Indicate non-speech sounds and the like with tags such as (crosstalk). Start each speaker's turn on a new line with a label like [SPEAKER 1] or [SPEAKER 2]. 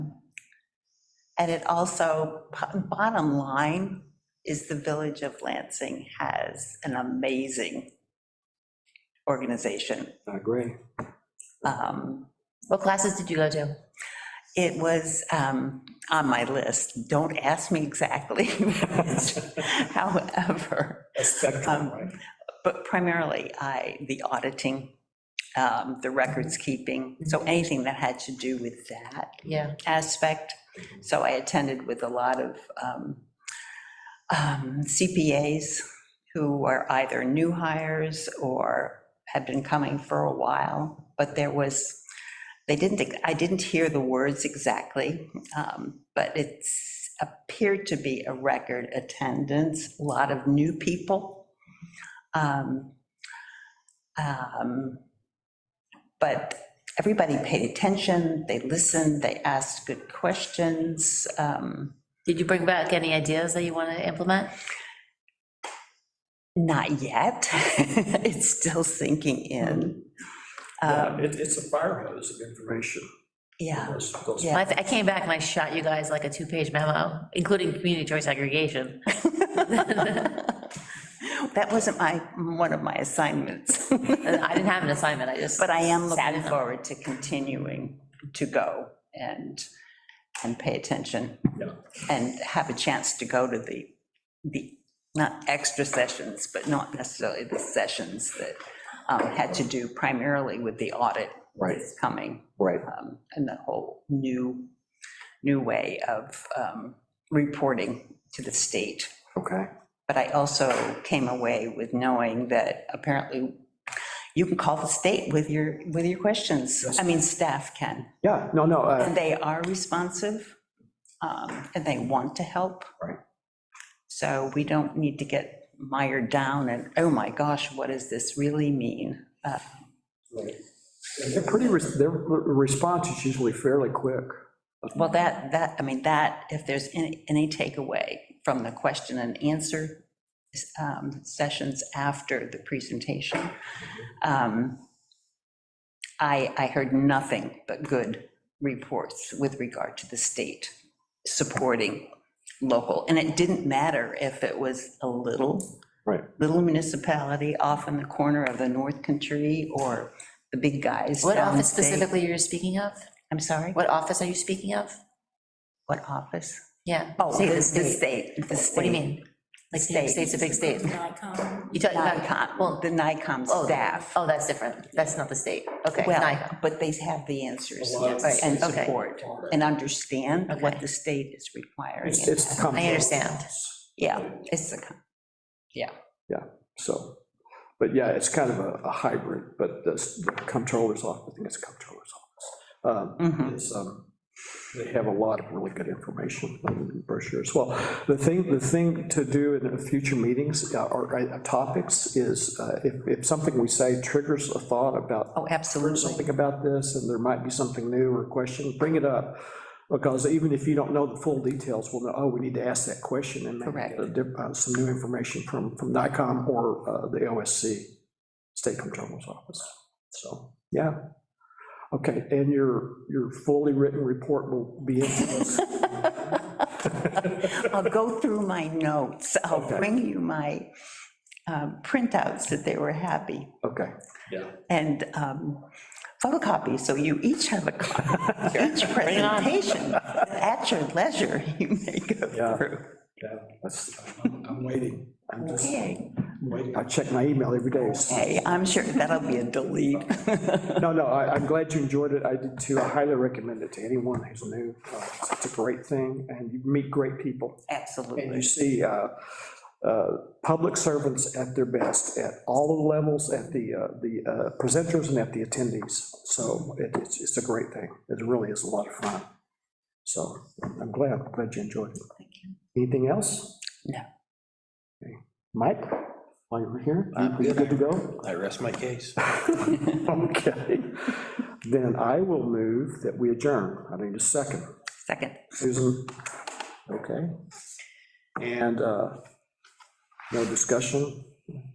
[SPEAKER 1] And it also, po- bottom line, is the Village of Lansing has an amazing organization.
[SPEAKER 2] I agree.
[SPEAKER 1] Um,
[SPEAKER 3] What classes did you go to?
[SPEAKER 1] It was um, on my list. Don't ask me exactly, (laughs) however.
[SPEAKER 2] A spectrum,
[SPEAKER 1] Um,
[SPEAKER 2] right?
[SPEAKER 1] But primarily, I, the auditing, um, the records keeping, so anything that had to do with that
[SPEAKER 3] Yeah,
[SPEAKER 1] aspect. So I attended with a lot of um, um, CPAs who are either new hires or had been coming for a while, but there was, they didn't, I didn't hear the words exactly, um, but it's appeared to be a record attendance, a lot of new people. Um, um, But everybody paid attention, they listened, they asked good questions. um,
[SPEAKER 3] did you bring back any ideas that you want to implement?
[SPEAKER 1] Not yet, (laughs) it's still sinking in.
[SPEAKER 2] Yeah,
[SPEAKER 1] Um,
[SPEAKER 2] it- It's a fire hose of information.
[SPEAKER 1] Yeah,
[SPEAKER 2] Those- those-
[SPEAKER 1] yeah.
[SPEAKER 3] I, I came back and I shot you guys like a two-page memo, including community choice (laughs) aggregation.
[SPEAKER 1] That wasn't my, one of my assignments,
[SPEAKER 3] And I didn't have an assignment, I
[SPEAKER 1] (laughs)
[SPEAKER 3] just.
[SPEAKER 1] but I am
[SPEAKER 3] Sat
[SPEAKER 1] looking
[SPEAKER 3] in them.
[SPEAKER 1] forward to continuing to go and, and pay attention.
[SPEAKER 2] Yeah.
[SPEAKER 1] And have a chance to go to the, the, not extra sessions, but not necessarily the sessions that um, had to do primarily with the audit
[SPEAKER 2] Right,
[SPEAKER 1] that's coming.
[SPEAKER 2] right.
[SPEAKER 1] um, and the whole new, new way of um, reporting to the state.
[SPEAKER 2] Okay.
[SPEAKER 1] But I also came away with knowing that apparently you can call the state with your, with your questions. I mean, staff can,
[SPEAKER 2] Yeah, no, no, uh,
[SPEAKER 1] and they are responsive, um, and they want to help.
[SPEAKER 2] Right.
[SPEAKER 1] So we don't need to get mired down and, oh my gosh, what does this really mean? Uh,
[SPEAKER 2] they're pretty, res- their re- response is usually fairly quick.
[SPEAKER 1] Well, that, that, I mean, that, if there's any, any takeaway from the question and answer um, sessions after the presentation, um, I, I heard nothing but good reports with regard to the state supporting local. And it didn't matter if it was a little.
[SPEAKER 2] Right.
[SPEAKER 1] Little municipality off in the corner of the North Country or the big guys.
[SPEAKER 3] What office
[SPEAKER 1] downstate.
[SPEAKER 3] specifically you're speaking of?
[SPEAKER 1] I'm sorry,
[SPEAKER 3] What office are you speaking of?
[SPEAKER 1] what office?
[SPEAKER 3] Yeah.
[SPEAKER 1] Oh,
[SPEAKER 3] State
[SPEAKER 1] the
[SPEAKER 3] of
[SPEAKER 1] the
[SPEAKER 3] state.
[SPEAKER 1] state, the state.
[SPEAKER 3] What do you mean? Like, New
[SPEAKER 1] State.
[SPEAKER 3] York state's a big state. You talk about,
[SPEAKER 1] NICOM,
[SPEAKER 3] well,
[SPEAKER 1] the NICOM
[SPEAKER 3] oh,
[SPEAKER 1] staff.
[SPEAKER 3] oh, that's different. That's not the state. Okay,
[SPEAKER 1] Well,
[SPEAKER 3] NICOM.
[SPEAKER 1] but they have the answers
[SPEAKER 2] A lot of-
[SPEAKER 1] and
[SPEAKER 3] Yes, okay.
[SPEAKER 1] support and understand what
[SPEAKER 3] Okay.
[SPEAKER 1] the state is requiring.
[SPEAKER 2] It's, it's come.
[SPEAKER 3] I understand.
[SPEAKER 1] Yeah, it's the, con-
[SPEAKER 2] So, but yeah, it's kind of a a hybrid, but the s- the comptroller's office, I think it's comptroller's office. um,
[SPEAKER 1] mhm.
[SPEAKER 2] is, um, they have a lot of really good information on the brochures. Well, the thing, the thing to do in the future meetings uh, or uh, topics is uh, if, if something we say triggers a thought about
[SPEAKER 1] oh, absolutely.
[SPEAKER 2] something about this, and there might be something new or question, bring it up. Because even if you don't know the full details, we'll know, oh, we need to ask that question and maybe
[SPEAKER 1] Correct.
[SPEAKER 2] get a dip- uh, some new information from, from NICOM or uh, the OSC, State Comptroller's Office. So, yeah. Okay, and your, your fully written report will be
[SPEAKER 1] (laughs)
[SPEAKER 2] in this.
[SPEAKER 1] I'll go through my notes. I'll
[SPEAKER 2] Okay.
[SPEAKER 1] bring you my um, printouts that they were happy
[SPEAKER 2] Okay,
[SPEAKER 1] and um, photocopies, so you each have a
[SPEAKER 3] (laughs)
[SPEAKER 1] copy, each
[SPEAKER 3] it on.
[SPEAKER 1] presentation. At your leisure, you may go
[SPEAKER 2] Yeah.
[SPEAKER 1] through.
[SPEAKER 2] yeah, that's, I'm I'm waiting. I'm just
[SPEAKER 1] Okay.
[SPEAKER 2] waiting. I check my email every day. It's-
[SPEAKER 1] Hey, I'm sure that'll be a delete.
[SPEAKER 2] No, no, I, I'm glad you enjoyed it. I did too. I highly recommend it to anyone who's new. Uh, It's it's a great thing, and you meet great people. And you
[SPEAKER 1] Absolutely.
[SPEAKER 2] see uh, uh, public servants at their best, at all the levels, at the, uh, the uh, presenters and at the attendees. So it- it's, it's a great thing. It really is a lot of fun. So I'm glad, I'm glad you enjoyed it. Anything else?
[SPEAKER 1] No.
[SPEAKER 2] Okay. Mike, while you're here, are you good to go?
[SPEAKER 4] I rest my case.
[SPEAKER 2] Okay, then I will move that we adjourn. I need a second.
[SPEAKER 1] Second.
[SPEAKER 2] Susan? Okay. And uh, no discussion?